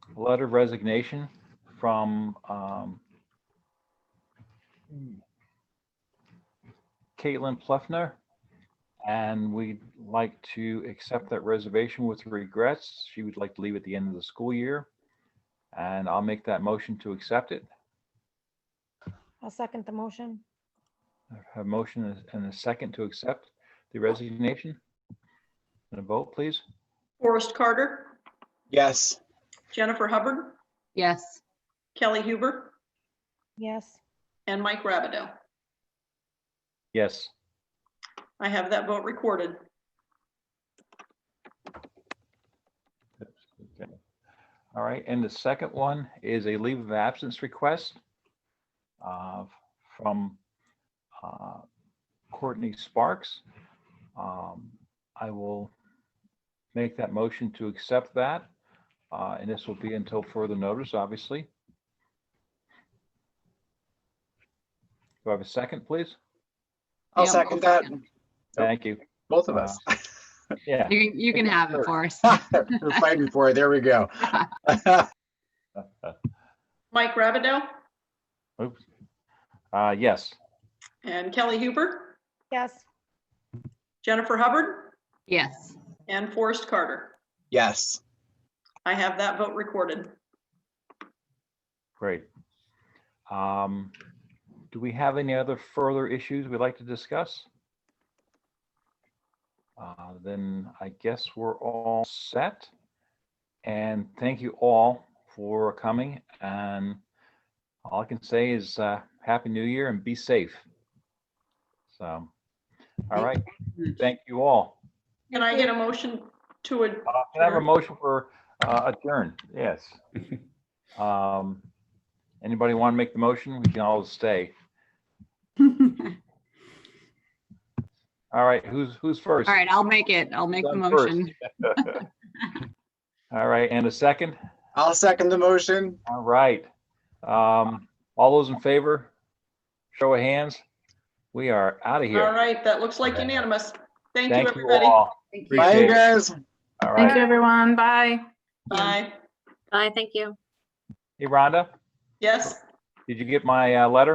letter of resignation from um, Caitlin Pluffner. And we'd like to accept that reservation with regrets. She would like to leave at the end of the school year. And I'll make that motion to accept it. I'll second the motion. A motion and a- and a second to accept the resignation. And a vote, please. Forrest Carter, Yes. Jennifer Hubbard, yes, Kelly Huber, Yes, and Mike Rabideau. Yes. I have that vote recorded. Okay. All right, and the second one is a leave of absence request uh, from uh, Courtney Sparks. Um, I will make that motion to accept that, uh, and this will be until further notice, obviously. Do I have a second, please? I'll Yeah, I'll second that. second. Nope. Thank you. Both of us. Yeah, you can, you can have it, Forrest. We're fighting for it. There we go. Mike Rabideau Uh, yes, and Kelly Huber, yes, Jennifer Hubbard, Yes, and Forrest Carter. Yes. I have that vote recorded. great. Um, Do we have any other further issues we'd like to discuss? Uh, Then I guess we're all set. And thank you all for coming. And all I can say is uh, Happy New Year and be safe. So, all Thank right, you. thank you all. Can I get a motion to, ad- Uh, Can I have a Sure. motion for uh, adjourn? Yes. Um, Anybody want to make the motion? We can all stay. All right, who's, who's first? all right, I'll make it, I'll make the Done first. motion. All right, and a second? I'll second the motion. All right. Um, All those in favor? Show of hands. We are out of all here. right, that looks like unanimous. Thank you, Thank you everybody. all. Bye, Appreciate you it. guys. All Thank you, right. everyone. Bye. Bye. Bye, thank you. Hey, Rhonda, Yes? did you get my uh, letter?